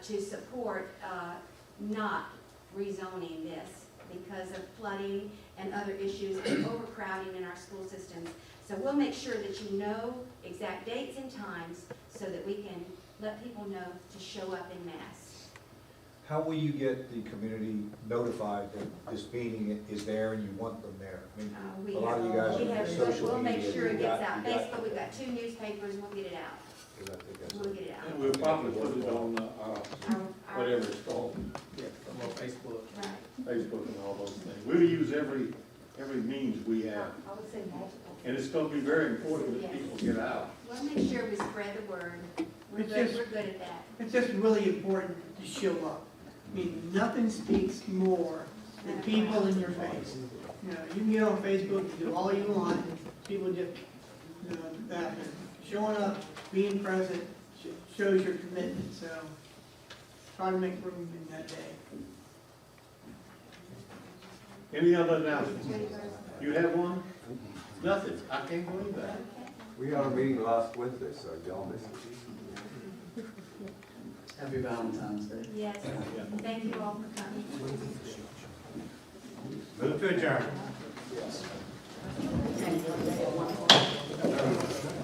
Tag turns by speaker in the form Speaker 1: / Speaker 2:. Speaker 1: to support uh, not rezoning this because of flooding and other issues and overcrowding in our school systems. So we'll make sure that you know exact dates and times so that we can let people know to show up in mass.
Speaker 2: How will you get the community notified that this meeting is there and you want them there? I mean,
Speaker 1: Uh, We
Speaker 2: A lot of you guys
Speaker 1: have, we
Speaker 2: are
Speaker 1: have,
Speaker 2: social
Speaker 1: we'll make
Speaker 2: media.
Speaker 1: sure it
Speaker 2: You
Speaker 1: gets
Speaker 2: got-
Speaker 1: out.
Speaker 2: you got-
Speaker 1: Facebook, we've got two newspapers, we'll get it out.
Speaker 2: 'cause I think that's-
Speaker 1: We'll get it
Speaker 3: And
Speaker 1: out.
Speaker 3: we'll probably put it on, uh,
Speaker 1: Our- our-
Speaker 3: whatever it's called,
Speaker 4: Yeah, on Facebook.
Speaker 1: Right.
Speaker 3: Facebook and all those things. We'll use every, every means we
Speaker 5: I
Speaker 3: have.
Speaker 5: would say multiple.
Speaker 3: And it's gonna be very important that people get out.
Speaker 1: We'll make sure we spread the word. We're
Speaker 4: It's
Speaker 1: good,
Speaker 4: just-
Speaker 1: we're good at that.
Speaker 4: It's just really important to show up. I mean, nothing speaks more than people in your face. You know, you can get on Facebook, and do all you want, people just, you know, that, showing up, being present, sh- shows your commitment, so try to make room in that day.
Speaker 3: Any other announcements? You have one? Nothing. I can't believe that.
Speaker 6: We had a meeting last Wednesday, so y'all missed it.
Speaker 7: Happy Valentine's Day.
Speaker 1: Yes, thank you all for coming.
Speaker 3: Move to adjourn.